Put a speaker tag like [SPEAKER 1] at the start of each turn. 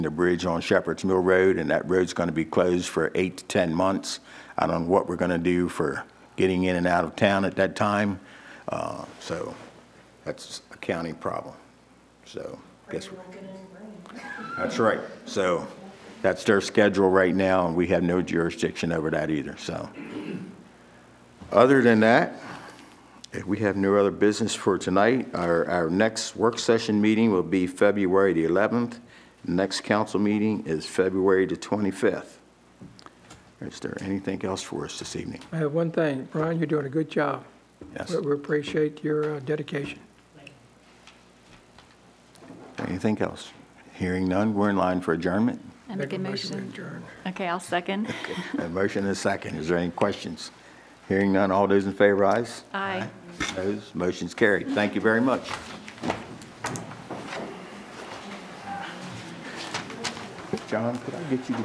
[SPEAKER 1] the bridge on Shepherd's Mill Road, and that road's going to be closed for eight to 10 months. I don't know what we're going to do for getting in and out of town at that time, Uh, so that's a county problem, so. guess That's right, so that's their schedule right now, and we have no jurisdiction over that either, so. Other than that, if we have no other business for tonight, our, our next work session meeting will be February the 11th. Next council meeting is February the 25th. Is there anything else for us this evening?
[SPEAKER 2] I have one thing, Brian, you're doing a good job.
[SPEAKER 1] Yes.
[SPEAKER 2] We- We appreciate your uh, dedication.
[SPEAKER 1] Anything else? Hearing none, we're in line for adjournment.
[SPEAKER 3] I make a
[SPEAKER 2] to
[SPEAKER 3] motion.
[SPEAKER 2] adjourn.
[SPEAKER 3] Okay, I'll second.
[SPEAKER 1] A motion and a second. Is there any questions? Hearing none, all those in favor, ayes?
[SPEAKER 3] Aye.
[SPEAKER 1] Those motion's carried. Thank you very much. John, could I get you to